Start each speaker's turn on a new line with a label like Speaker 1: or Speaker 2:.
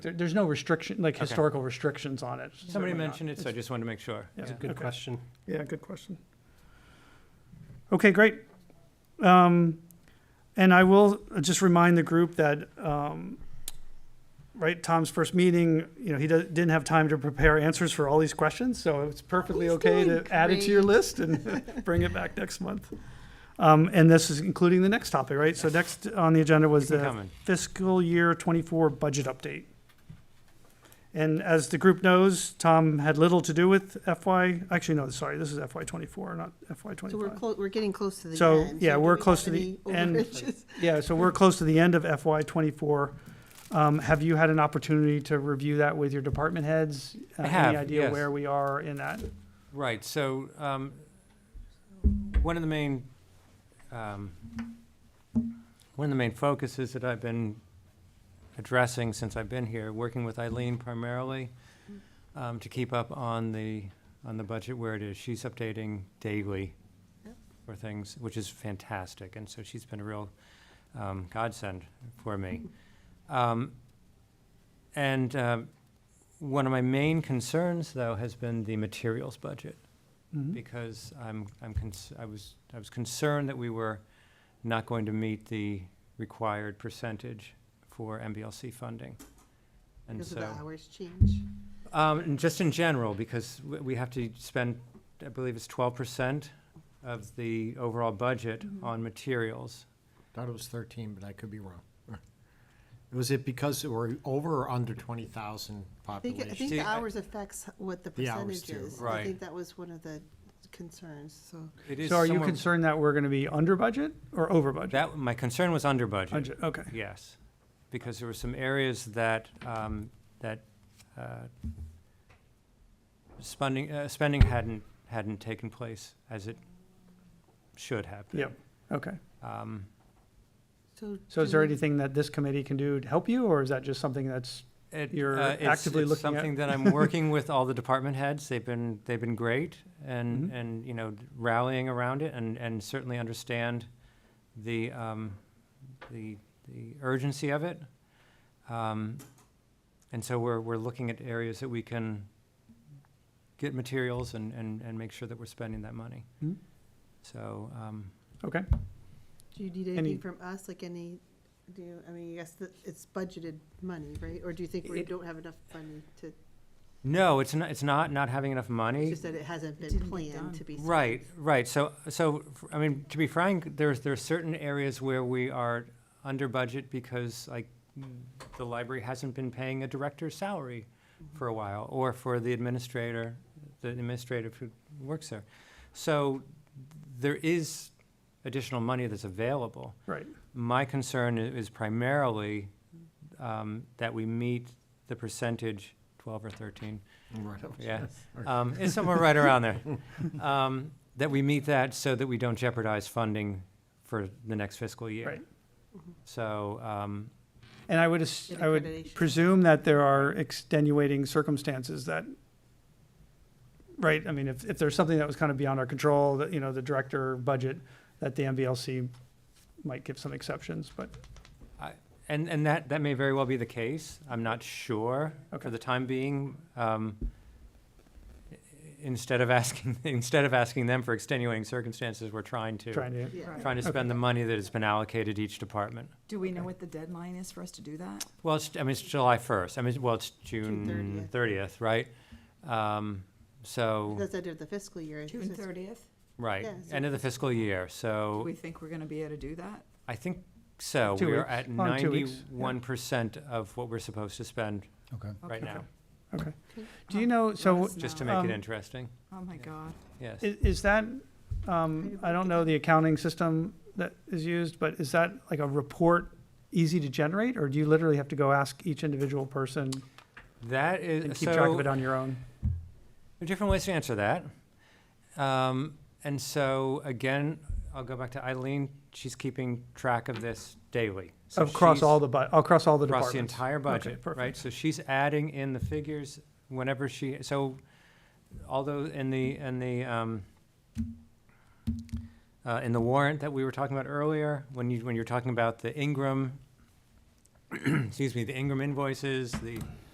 Speaker 1: There, there's no restriction, like
Speaker 2: Okay.
Speaker 1: historical restrictions on it.
Speaker 2: Somebody
Speaker 1: Certainly not.
Speaker 2: mentioned it, so I just wanted to make sure.
Speaker 1: Yeah.
Speaker 3: Good
Speaker 1: Okay.
Speaker 3: question.
Speaker 4: Yeah, good question. Okay, great. Um, and I will just remind the group that, um, right, Tom's first meeting, you know, he does, didn't have time to prepare answers for all these questions, so it's perfectly
Speaker 5: He's
Speaker 4: okay to
Speaker 5: doing
Speaker 4: add it to your
Speaker 5: great.
Speaker 4: list and bring it back next month. Um, and this is including the next topic, right? So next on the agenda was
Speaker 2: Keep 'em
Speaker 4: the
Speaker 2: coming.
Speaker 4: fiscal year twenty-four budget update. And as the group knows, Tom had little to do with FY, actually, no, sorry, this is FY twenty-four, not FY
Speaker 5: So we're
Speaker 4: twenty-five.
Speaker 5: close, we're getting close to the end.
Speaker 4: So, yeah,
Speaker 5: do
Speaker 4: we're
Speaker 5: we
Speaker 4: close
Speaker 5: have
Speaker 4: to the
Speaker 5: any
Speaker 4: end.
Speaker 5: overages?
Speaker 4: Yeah, so we're close to the end of FY twenty-four. Um, have you had an opportunity to review that with your department heads?
Speaker 2: I
Speaker 4: Uh,
Speaker 2: have,
Speaker 4: Any idea
Speaker 2: yes.
Speaker 4: where we are in that?
Speaker 2: Right, so, um, one of the main, um, one of the main focuses that I've been addressing since I've been here, working with Eileen primarily, um, to keep up on the, on the budget where it is. She's updating daily
Speaker 5: Yep.
Speaker 2: for things, which is fantastic, and so she's been a real, um, godsend for me. Um, and, um, one of my main concerns, though, has been the materials budget,
Speaker 5: Mm-hmm.
Speaker 4: Mhm.
Speaker 2: because I'm, I'm, cons- I was, I was concerned that we were not going to meet the required percentage for MBLC funding. And
Speaker 5: Because of
Speaker 2: so,
Speaker 5: the hours change.
Speaker 2: um, and just in general, because we, we have to spend, I believe it's twelve percent of the overall budget
Speaker 5: Mm-hmm.
Speaker 2: on materials.
Speaker 3: Thought it was thirteen, but I could be wrong. Was it because we're over or under twenty thousand
Speaker 5: I think, I
Speaker 3: population?
Speaker 5: think
Speaker 2: See,
Speaker 5: the
Speaker 2: I-
Speaker 5: hours affects what the
Speaker 3: The hours
Speaker 5: percentage
Speaker 3: too,
Speaker 5: is. I
Speaker 2: right.
Speaker 5: think that was one of the concerns, so.
Speaker 2: It is
Speaker 4: So are you
Speaker 2: somewhere-
Speaker 4: concerned that we're gonna be under budget or over budget?
Speaker 2: That, my concern was under budget.
Speaker 4: Budget, okay.
Speaker 2: Yes, because there were some areas that, um, that, uh, spending, uh, spending hadn't, hadn't taken place as it should have been.
Speaker 4: Yep, okay.
Speaker 2: Um,
Speaker 4: So is there
Speaker 5: do-
Speaker 4: anything that this committee can do to help you, or is that just something that's,
Speaker 2: it,
Speaker 4: You're
Speaker 2: uh, it's-
Speaker 4: actively
Speaker 2: it's
Speaker 4: looking at-
Speaker 2: Something that I'm working with all the department heads, they've been, they've been great and,
Speaker 4: Mhm.
Speaker 2: and, you know, rallying around it and, and certainly understand the, um, the, the urgency of it. Um, and so we're, we're looking at areas that we can get materials and, and, and make sure that we're spending that money.
Speaker 4: Mhm.
Speaker 2: So, um,
Speaker 4: okay?
Speaker 5: Do you need
Speaker 4: any-
Speaker 5: anything from us, like any, do, you- I mean, I guess that it's budgeted money, right? Or do you think we
Speaker 2: It-
Speaker 5: don't have enough money to,
Speaker 2: no, it's not, it's not, not having enough money.
Speaker 5: it's just that it hasn't been planned to be spent?
Speaker 2: Right, right. So, so, f- I mean, to be frank, there's, there are certain areas where we are under budget because like the library hasn't been paying a director's salary for a while or for the administrator, the administrator who works there. So there is additional money that's available.
Speaker 4: Right.
Speaker 2: My concern i- is primarily um, that we meet the percentage, 12 or 13,
Speaker 3: Right, okay.
Speaker 2: yeah.
Speaker 3: Or-
Speaker 2: Um, it's somewhere right around there. Um, that we meet that so that we don't jeopardize funding for the next fiscal year.
Speaker 4: Right.
Speaker 2: So, um,
Speaker 4: And I would, as-
Speaker 5: An
Speaker 4: I would
Speaker 5: accreditation.
Speaker 4: presume that there are extenuating circumstances that, right, I mean, if, if there's something that was kind of beyond our control, that, you know, the director budget, that the MVLC might give some exceptions, but,
Speaker 2: and, and that, that may very well be the case. I'm not sure
Speaker 4: Okay.
Speaker 2: for the time being. Um, i- instead of asking, instead of asking them for extenuating circumstances, we're trying to,
Speaker 4: trying to,
Speaker 5: Yeah.
Speaker 2: trying to spend the money that has been allocated each department.
Speaker 6: Do we know what the deadline is for us to do that?
Speaker 2: Well, it's, I mean, it's July 1st. I mean, well, it's
Speaker 5: June
Speaker 2: June
Speaker 5: 30th.
Speaker 2: 30th, right? Um, so.
Speaker 5: That's the end of the fiscal year. it's
Speaker 6: June
Speaker 5: just-
Speaker 6: thirtieth?
Speaker 2: Right,
Speaker 5: Yeah, so-
Speaker 2: end of the fiscal year,
Speaker 6: Do
Speaker 2: so
Speaker 6: we think we're gonna be able to do that?
Speaker 2: I think so.
Speaker 4: Two
Speaker 2: We're
Speaker 4: weeks.
Speaker 2: at
Speaker 4: Oh, in two weeks,
Speaker 2: ninety-one percent of what we're supposed to spend right
Speaker 6: Okay.
Speaker 2: now,
Speaker 4: okay.
Speaker 5: Okay.
Speaker 4: Do you know, so
Speaker 6: Let us
Speaker 2: just to
Speaker 6: know.
Speaker 2: make
Speaker 4: Um,
Speaker 2: it interesting,
Speaker 6: Oh, my God.
Speaker 2: yes.
Speaker 4: i- is that, um, I don't know the accounting system that is used, but is that like a report easy to generate, or do you literally have to go ask each individual person
Speaker 2: That
Speaker 4: and
Speaker 2: is,
Speaker 4: keep track of
Speaker 2: so,
Speaker 4: it on your own?
Speaker 2: there are different ways to answer that. Um, and so, again, I'll go back to Eileen, she's keeping track of this daily. So
Speaker 4: Across
Speaker 2: she's-
Speaker 4: all the, bu- across all the
Speaker 2: Across
Speaker 4: departments?
Speaker 2: the entire budget, right?
Speaker 4: perfect.
Speaker 2: So she's adding in the figures whenever she, so although in the, in the, um, uh, in the warrant that we were talking about earlier, when you, when you're talking about the Ingram excuse me, the Ingram invoices, the